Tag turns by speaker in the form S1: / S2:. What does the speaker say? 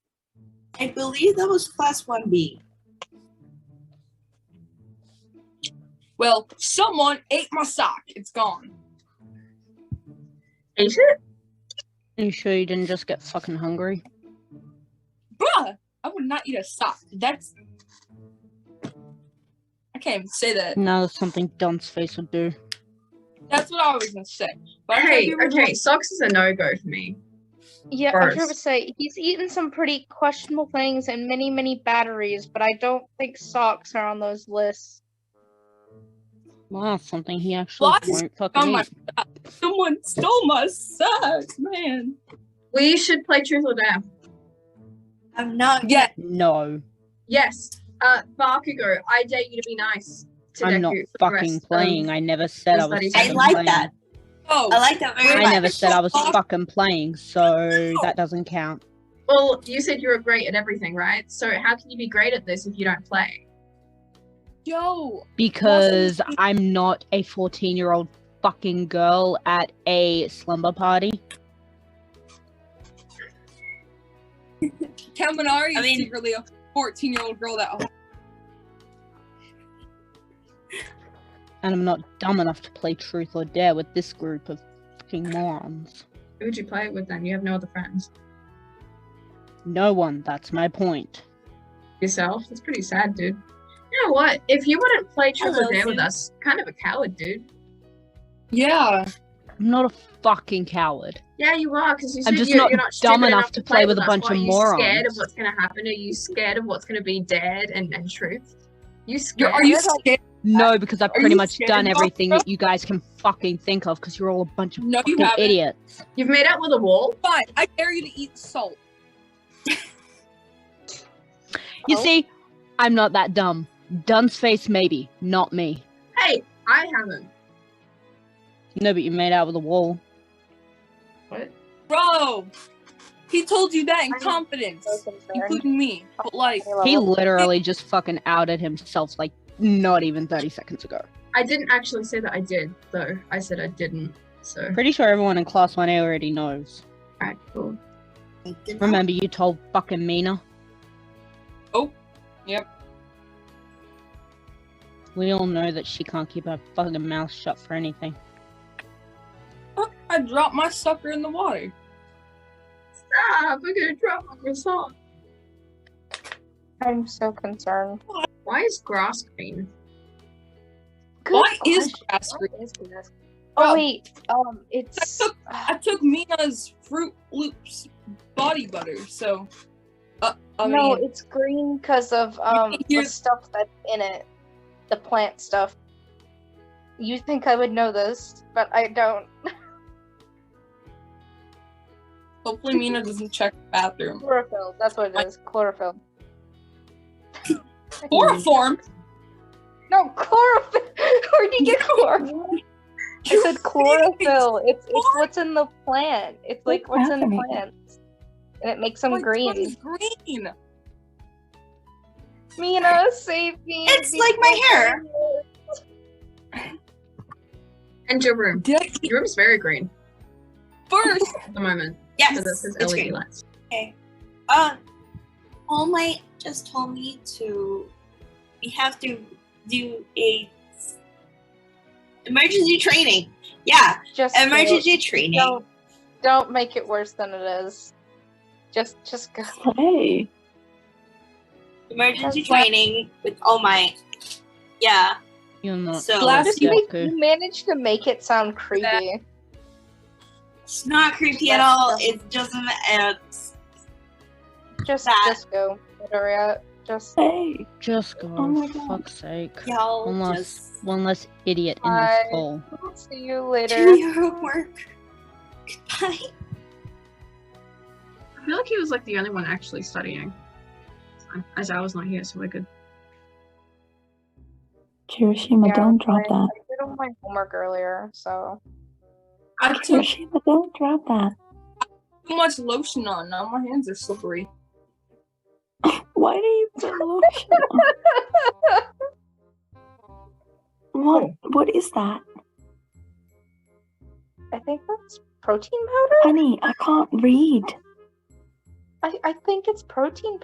S1: I believe that was class one B.
S2: Well, someone ate my sock. It's gone.
S3: Is it?
S4: Are you sure you didn't just get fucking hungry?
S2: Bruh, I would not eat a sock. That's. I can't even say that.
S4: No, that's something Dunce Face would do.
S2: That's what I was gonna say. But I
S3: Okay,
S2: can't remember
S3: okay. Socks is a no go for me.
S5: Yeah, I was
S3: Gross.
S5: going to say he's eaten some pretty questionable things and many, many batteries, but I don't think socks are on those lists.
S4: Wow, that's something he actually
S2: Lots is
S4: won't fucking
S2: on my-
S4: eat.
S2: what- Someone stole my socks, man.
S3: We should play Truth or Dare.
S1: I'm not.
S2: Yeah,
S4: No,
S3: Yes. Uh, Bakugo, I dare you to be nice to
S4: I'm
S3: Deku
S4: not
S3: for the
S4: fucking
S3: rest
S4: playing.
S3: Of...
S4: I never said I
S3: is that
S4: was.
S3: he's-
S1: Um, I
S4: fucking
S1: like
S4: playing.
S1: that.
S2: Oh,
S1: I like that very
S2: Wait,
S4: I
S1: much.
S4: never said I was
S2: Fuck.
S4: fucking playing, so that doesn't count.
S3: Well, you said you were great at everything, right? So how can you be great at this if you don't play?
S2: yo,
S4: Because I'm not a 14 year old fucking girl at a slumber party.
S2: Kaminari
S1: I
S2: is
S1: mean-
S2: secretly a 14 year old girl that.
S4: and I'm not dumb enough to play truth or dare with this group of fucking morons.
S3: Who would you play it with then? You have no other friends.
S4: No one, that's my point.
S3: Yourself? That's pretty sad, dude. You know what? If you wouldn't play Truth
S1: Hello,
S3: or Dare with
S1: Sue.
S3: us, kind of a coward, dude.
S2: Yeah.
S4: I'm not a fucking coward.
S3: Yeah, you are, because you said
S4: I'm just
S3: you,
S4: not
S3: you're not
S4: dumb enough
S3: stupid enough
S4: to play with a
S3: us.
S4: bunch
S3: What,
S4: of
S3: Are you scared of
S4: morons.
S3: what's going to happen? Are you scared of what's going to be dared and, and truth? You
S2: You're,
S3: scared?
S2: are you scared?
S4: No, because I've
S2: Are
S4: pretty
S2: you
S4: much
S2: scared,
S4: done
S2: Barbara?
S4: everything that you guys can fucking think of because you're all a bunch of
S2: No, you
S4: fucking
S2: haven't.
S4: idiots.
S3: You've made out with a wall.
S2: Fine. I dare you to eat salt.
S4: You
S3: Oh.
S4: see, I'm not that dumb. Dunce face, maybe, not me.
S3: Hey, I haven't.
S4: No, but you made out with a wall.
S3: What?
S2: Bro, he told you that in
S5: I'm so
S2: confidence,
S5: So concerned.
S2: including me. But like,
S4: He
S5: Level.
S4: literally just fucking outed himself like not even 30 seconds ago.
S3: I didn't actually say that I did, though. I said I didn't. So,
S4: Pretty sure everyone in class 1A already knows.
S3: alright, cool.
S4: Remember, you told fucking Mina?
S2: Oh, yep.
S4: We all know that she can't keep her fucking mouth shut for anything.
S2: fuck, I dropped my sucker in the water.
S3: Stop! We're gonna drop on your song.
S5: I'm so concerned.
S3: Why is grass green?
S5: Good
S2: What is
S5: question.
S2: grass green?
S5: What is grass?
S2: Bro.
S5: Oh wait, um, it's uh,
S2: I took Mina's Fruit Loops body butter, so. Uh, I
S5: no,
S2: mean,
S5: it's green because of um the
S2: you're-
S5: stuff that's in it, the plant stuff. You think I would know this, but I don't.
S2: hopefully Mina doesn't check the bathroom.
S5: Chlorophyll. That's what it is. Chlorophyll.
S2: Chloroform?
S5: No, chlorophyll. Where'd you get chlorophyll? I
S2: You
S5: said chlorophyll. It's it's
S2: What?
S5: what's in the plant. It's like what's in the plants, and it makes them
S2: freaking
S5: green.
S2: green.
S5: Mina, save me.
S1: It's like my hair.
S3: And your room.
S2: Did I eat
S3: Your room's very green
S2: first?
S3: at the moment.
S1: Yes,
S3: So this is
S1: it's
S3: LED
S1: green.
S3: lights.
S1: Um, All Might just told me to. We have to do a emergency training. Yeah,
S5: Just do it.
S1: emergency training.
S5: Don't don't make it worse than it is. Just just go.
S6: Hey.
S1: Emergency
S5: That's why-
S1: training with All Might. Yeah.
S4: You're not.
S1: So-
S4: a
S2: Blast
S5: Just
S2: you.
S5: make,
S4: Deku.
S5: you managed to make it sound creepy.
S1: It's not creepy at all. It's just an uh,
S5: Just
S1: That.
S5: just go, Midoriya. Just
S6: Hey.
S4: Just go.
S6: Oh my
S4: for
S6: God.
S4: fuck's sake.
S1: y'all
S4: Unless-
S1: just
S4: One less idiot in
S5: Bye.
S4: this hole.
S5: see you later.
S1: do your homework. Goodbye.
S3: I feel like he was like the only one actually studying. So, As I was not here, so we're good.
S6: Kirishima,
S5: Yeah,
S6: don't drop
S5: I-
S6: that.
S5: I did all my homework earlier, so
S2: I took
S6: Kirishima, don't drop that.
S2: too much lotion on. Now my hands are slippery.
S6: Why do you put lotion on? What? What is that?
S5: I think that's protein powder.
S6: Honey, I can't read.
S5: I, I think it's protein